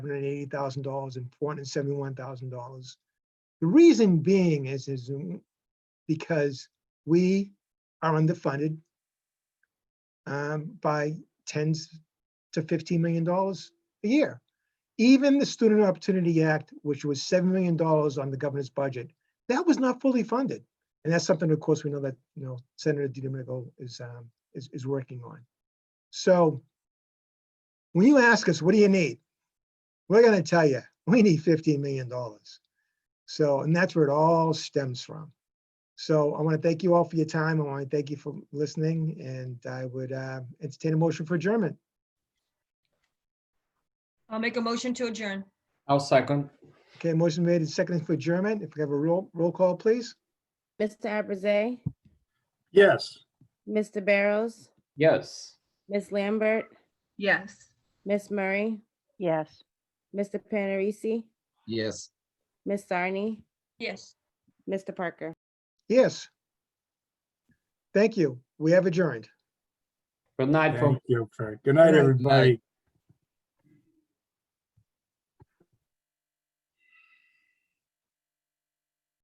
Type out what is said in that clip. hundred and eighty thousand dollars and four hundred and seventy-one thousand dollars. The reason being is, is because we are underfunded um, by tens to fifteen million dollars a year. Even the Student Opportunity Act, which was seven million dollars on the governor's budget, that was not fully funded. And that's something, of course, we know that, you know, Senator DiDomenico is, um, is, is working on. So when you ask us, what do you need? We're gonna tell you, we need fifteen million dollars. So, and that's where it all stems from. So I want to thank you all for your time. I want to thank you for listening and I would uh, entertain a motion for adjournment. I'll make a motion to adjourn. I'll second. Okay, motion made and seconded for adjournment. If we have a roll, roll call, please. Mr. Abraze, Yes. Mr. Barrows, Yes. Miss Lambert, Yes. Miss Murray, Yes. Mr. Panarisi, Yes. Miss Sarni, Yes. Mr. Parker. Yes. Thank you. We have adjourned. Good night, folks. Thank you, Frank. Good night, Good night. everybody.